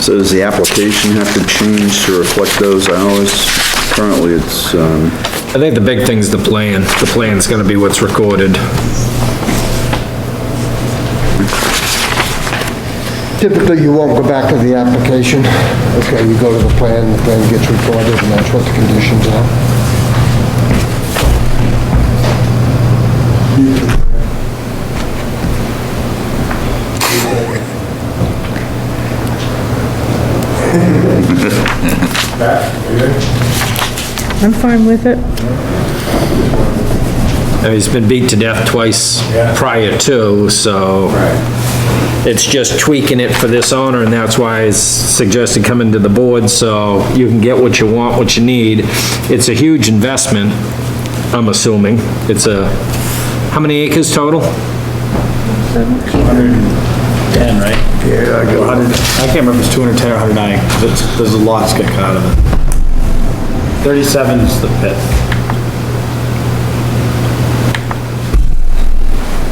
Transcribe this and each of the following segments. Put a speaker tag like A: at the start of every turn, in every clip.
A: So does the application have to change to reflect those hours? Currently, it's, um,
B: I think the big thing's the plan. The plan's gonna be what's recorded.
C: Typically, you won't go back to the application. Okay, you go to the plan, the plan gets recorded, and that's what the conditions are.
D: I'm fine with it.
B: I mean, he's been beat to death twice prior to, so. It's just tweaking it for this owner, and that's why I suggested coming to the board, so you can get what you want, what you need. It's a huge investment, I'm assuming. It's a, how many acres total?
E: Ten, right? Yeah, I got it. I can't remember if it's two hundred ten or hundred nine, because there's a lot that's get cut out of it. Thirty-seven is the pit.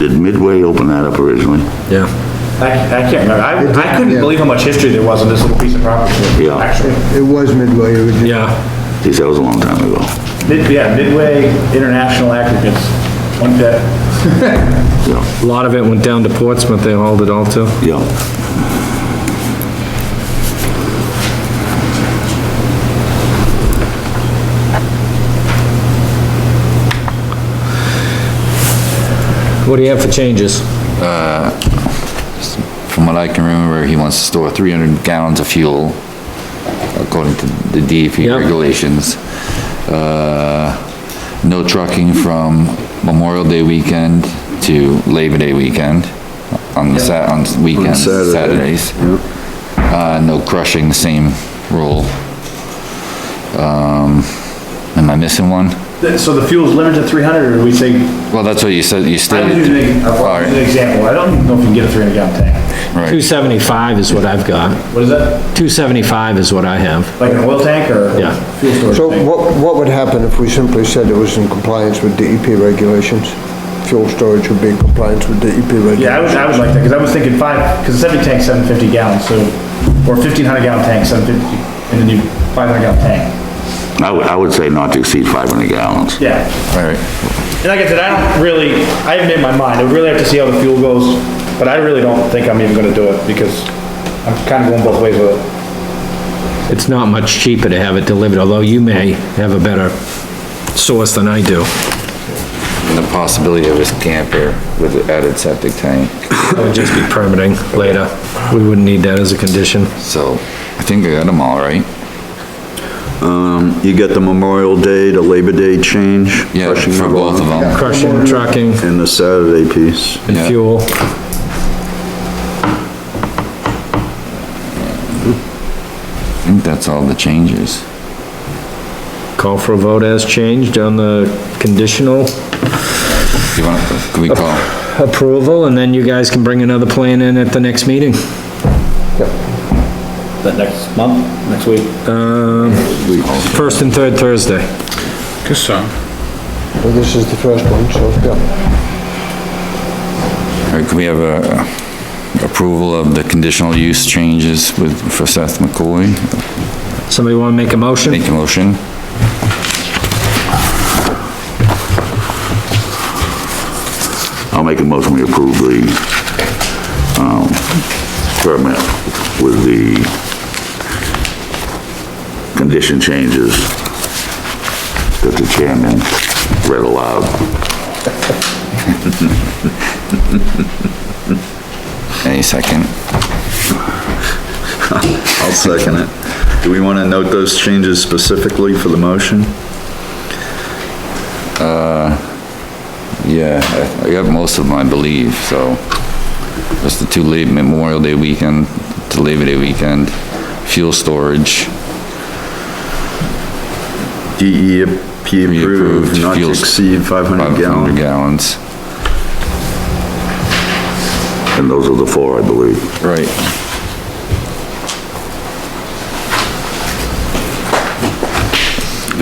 F: Did Midway open that up originally?
B: Yeah.
E: I, I can't remember, I, I couldn't believe how much history there was on this little piece of property.
F: Yeah.
E: Actually,
C: It was midway, it was-
B: Yeah,
F: Geez, that was a long time ago.
E: mid, yeah, Midway International Aggregates, one pit.
F: Yeah,
B: a lot of it went down to Portsmouth, they hauled it all to.
F: yeah.
B: What do you have for changes?
G: From what I can remember, he wants to store 300 gallons of fuel according to the DEP
B: Yep.
G: regulations. Uh, No trucking from Memorial Day weekend to Labor Day weekend on the Sat, on weekends,
A: Saturday.
G: Saturdays. Uh, no crushing, same rule. Um, Am I missing one?
E: Th- So the fuel's limited to three hundred, or we say,
G: Well, that's what you said, you
E: I
G: stated.
E: was using a-
G: All
E: an
G: right,
E: example, I don't even know if you can get a three hundred gallon tank.
G: right.
B: 275 is what I've got.
E: What is that?
B: 275 is what I have.
E: Like an oil tank or?
B: Yeah.
E: Fuel storage
C: So
E: tank?
C: what, what would happen if we simply said it was in compliance with DEP regulations? Fuel storage would be in compliance with DEP regulations?
E: Yeah, I was, I was like that, because I was thinking five, because the septic tank's seven fifty gallons, so, or fifteen hundred gallon tank, seven fifty, and then you, five hundred gallon tank.
F: I would, I would say not to exceed 500 gallons.
E: Yeah,
G: All right.
E: and like I said, I don't really, I haven't made my mind, I really have to see how the fuel goes, but I really don't think I'm even gonna do it, because I'm kinda going both ways with it.
B: It's not much cheaper to have it delivered, although you may have a better source than I do.
G: and the possibility of his camper with an added septic tank.
B: It would just be permitting later. We wouldn't need that as a condition.
G: So I think I got them all right.
A: you got the Memorial Day to Labor Day change?
G: Yeah,
A: crushing
G: for both of them.
B: Crushing, trucking,
A: And the Saturday piece.
B: and
G: Yeah.
B: fuel.
G: I think that's all the changes.
B: Call for a vote as changed on the conditional
G: You want, can we call?
B: approval, and then you guys can bring another plan in at the next meeting.
E: That next month, next week?
B: Uh, First and third Thursday.
C: Well, This is the first one, so, yeah.
G: Or can we have a approval of the conditional use changes with, for Seth McCoy?
B: Somebody wanna make a motion?
G: Make a motion.
F: I'll make a motion we approve the, um, permit with the condition changes that the chairman read aloud.
G: Any second?
A: I'll second it. Do we want to note those changes specifically for the motion?
G: Yeah, I I got most of them, I believe, so. Just the two late Memorial Day weekend to Labor Day weekend, fuel storage.
A: DEP E approved,
G: Reapproved,
A: not to
G: fuels-
A: exceed 500
G: 500
A: gallons.
G: gallons.
F: And those are the four, I believe.
G: Right.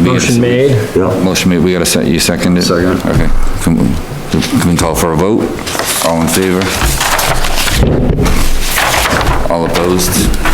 B: Motion made.
F: Yeah.
G: Motion made, we gotta set, you second it?
A: Second.
G: Okay, can, we- can we call for a vote? All in favor? All opposed?